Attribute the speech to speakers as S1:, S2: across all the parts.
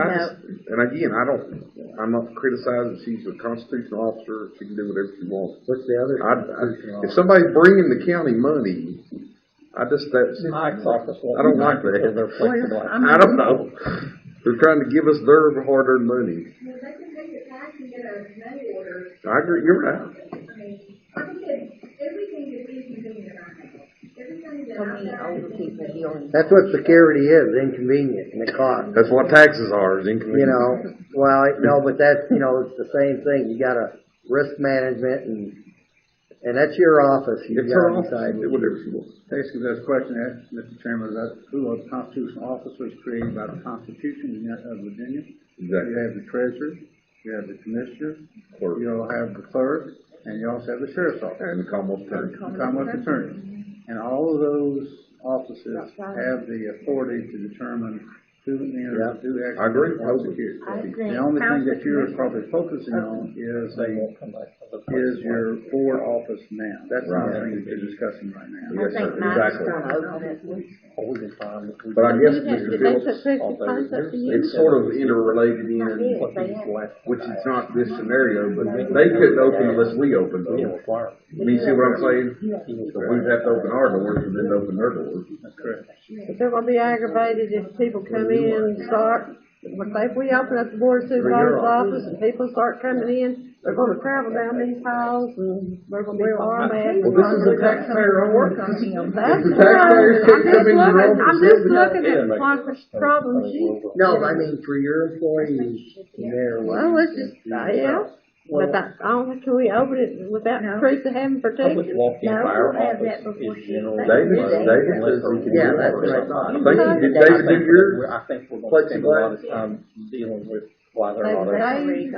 S1: I just- And again, I don't, I'm not criticizing, she's a constitutional officer, she can do whatever she wants.
S2: What's the other?
S1: I, I, if somebody's bringing the county money, I just, that's,
S2: Mike's office won't.
S1: I don't like that.
S2: Because they're flexible.
S1: I don't know. They're trying to give us their hard-earned money.
S3: Well, they can take it back and get a money order.
S1: I agree, you're right.
S3: I mean, like I said, everything that we can do in our house, everything that
S4: For me,
S3: I've
S4: older
S3: done.
S4: people dealing.
S2: That's what security is, inconvenient and it costs.
S1: That's what taxes are, is income.
S2: You know, well, I- no, but that's, you know, it's the same thing. You gotta risk management and, and that's your office. You
S1: It's her
S2: gotta
S1: office,
S2: decide.
S1: do whatever she wants.
S5: Basically, that's a question I asked, Mr. Chairman, that who of constitutional office was created by the Constitution of Virginia. You
S1: Exactly.
S5: have the treasurer, you have the commissioner,
S1: Clerk.
S5: you all have the clerk, and you also have the sheriff's office,
S1: And the Commonwealth Attorney.
S5: the Commonwealth attorney. And all of those offices
S4: That's right.
S5: have the authority to determine who
S2: Yeah.
S5: enters, who actually.
S1: I agree.
S5: performs the duty.
S4: I agree.
S5: The only thing that you're probably focusing on is a, is your board office now. That's the only
S1: Right.
S5: thing that you're discussing right now.
S1: Yes,
S4: I
S1: sir,
S4: think Mike's
S1: exactly.
S4: gonna open it.
S1: But I guess,
S4: Did they-
S1: Mr.
S4: did they
S1: Phillips,
S4: put fifty points up to you?
S1: it's sort of interrelated in,
S4: Yes, they have.
S1: which it's not this scenario, but they couldn't open unless we opened them. I mean, see what I'm saying? So we'd have to open our doors and then open their doors.
S5: That's correct.
S6: If they're gonna be aggravated if people come in and start, but if we open up the board of supervisor's office and people start coming in, they're gonna travel down these halls and they're gonna be far mad.
S1: Well, this is a taxpayer on work.
S6: That's
S1: The
S6: the
S1: taxpayers
S6: problem.
S1: can't come in your
S6: I'm
S1: office
S6: just looking, I'm
S1: and uh,
S6: just
S1: say,
S6: looking
S1: "Yeah,
S6: at
S1: make it."
S6: Congress problems. you-
S2: No, I mean, for your employees, they're.
S6: Well, let's just, yeah, but I, I don't, think- can we open it without
S4: No.
S6: Teresa having protection?
S4: No, we'll have that before she.
S1: David, David says we can do
S2: Yeah, that's
S1: ours.
S2: what I thought.
S1: I think, did David do yours?
S7: I think we're gonna spend a lot of time dealing with why they're not open.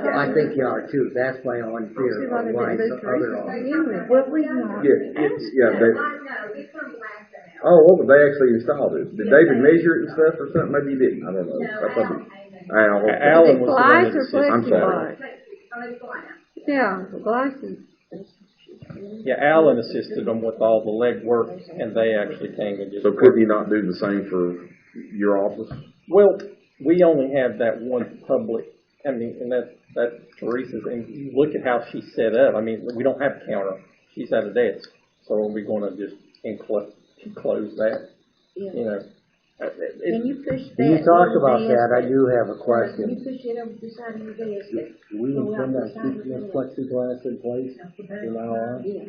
S2: I think you are too. That's my own fear of why the other office.
S4: What we want.
S1: Yeah, it's, yeah,
S3: Like,
S1: David.
S3: no, we couldn't last an hour.
S1: Oh, well, but they actually installed it. Did David measure it and stuff or something? Maybe he didn't. I don't know.
S3: No,
S1: Oh, I
S3: I
S1: thought,
S3: don't, I
S1: he- Al.
S6: Is
S7: Alan
S6: it
S7: was the one that
S6: glass or
S7: said-
S1: I'm sorry.
S6: plexiglass?
S3: But, oh, it's going out.
S6: Yeah, glass is,
S7: Yeah, Alan assisted them with all the legwork, and they actually came and just.
S1: So could you not do the same for your office?
S7: Well, we only have that one public, I mean, and that, that Teresa's, and you look at how she's set up, I mean, we don't have a counter, she's at a desk. So are we gonna just enclose, close that,
S4: Yeah.
S7: you know? Uh, it- it-
S4: Can you push that?
S2: You talked about
S4: little
S2: that. I
S4: desk?
S2: do have a
S4: Can
S2: question.
S4: you push it over the side of your desk?
S8: We can send that sheet of plexiglass in place from now on,
S4: Yeah.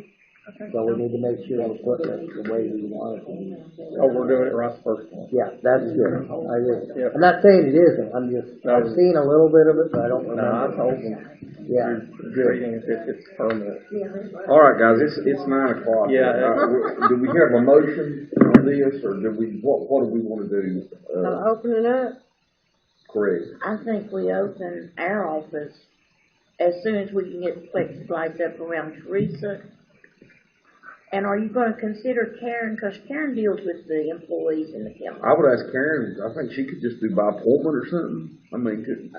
S8: so we need to make sure we put it the way we want it.
S7: Oh, we're doing it right the first time.
S2: Yeah, that's good. I
S7: Yeah.
S2: just, I'm not saying it isn't. I'm just, I've
S7: No.
S2: seen a little bit of it, but I don't
S7: No, I
S2: remember.
S7: told them,
S2: Yeah.
S7: treating it as if it's permanent.
S1: All right, guys, it's, it's nine o'clock.
S7: Yeah.
S1: Uh, we- Do we have a motion on this or do we, what, what do we want to do? Uh,
S6: uh, opening up.
S1: Craig?
S4: I think we open our office as soon as we can get plexiglass up around Teresa. And are you gonna consider Karen, cause Karen deals with the employees in the county.
S1: I would ask Karen, I think she could just do by appointment or something. I mean, could,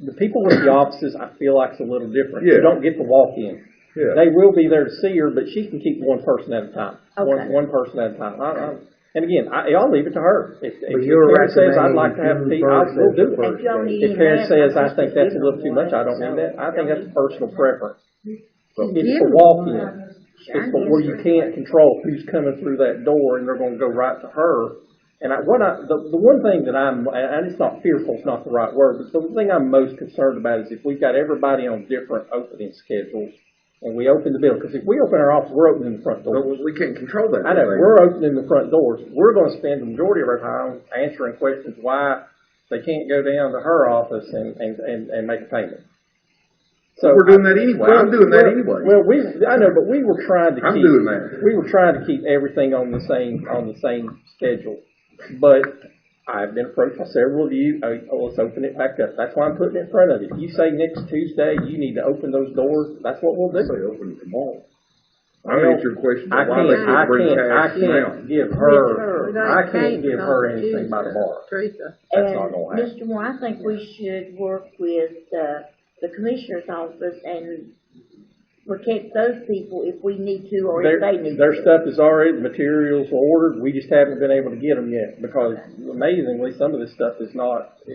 S7: The people with the offices, I feel like's a little different. You
S1: Yeah.
S7: don't get the walk-in.
S1: yeah.
S7: They will be there to see her, but she can keep one person at a time. One,
S4: Okay.
S7: one person at a time. I, I, and again, I, I'll leave it to her. If, if
S2: But you're
S7: Karen says, I'd
S2: recommending
S7: like to have,
S2: June
S7: people, I
S2: first
S7: will
S2: as
S7: do
S2: the
S7: it.
S4: If y'all need
S7: If Karen
S4: another,
S7: says, I think that's a little too
S4: just-
S7: much, I don't need that, I think that's a personal preference.
S1: So-
S7: It's for walk-in. It's for where you can't control who's coming through that door and they're gonna go right to her. And I, what I, the, the one thing that I'm, and it's not fearful, it's not the right word, but the thing I'm most concerned about is if we've got everybody on different opening schedules and we open the building, because if we open our office, we're opening the front
S1: But
S7: door.
S1: we can't control that.
S7: I know,
S1: thing.
S7: we're opening the front doors, we're gonna spend the majority of our time answering questions why they can't go down to her office and, and, and, and make a payment. So
S1: We're doing that anyway. I'm doing that anyway.
S7: well, we, I know, but we were trying to keep.
S1: I'm doing that.
S7: We were trying to keep everything on the same, on the same schedule. But I've been approached by several of you, oh, oh, let's open it back up. That's why I'm putting it in front of you. You say next Tuesday, you need to open those doors, that's what we'll
S1: They
S7: do.
S1: say open it tomorrow. I mean, it's your question,
S7: I
S1: but why they
S7: can't, I
S1: can't bring
S7: can't, I
S1: cash now?
S7: can't give
S6: We
S7: her,
S6: don't
S7: I can't
S6: paint
S7: give
S6: on
S7: her anything by
S6: Tuesday,
S7: tomorrow.
S6: Teresa.
S7: That's not gonna
S4: And Mr. Moore, I think we should work with, uh, the commissioner's office and protect those people if we need to or
S7: Their,
S4: if they need to.
S7: their stuff is already, materials are ordered, we just haven't been able to get them yet because amazingly, some of this stuff is not,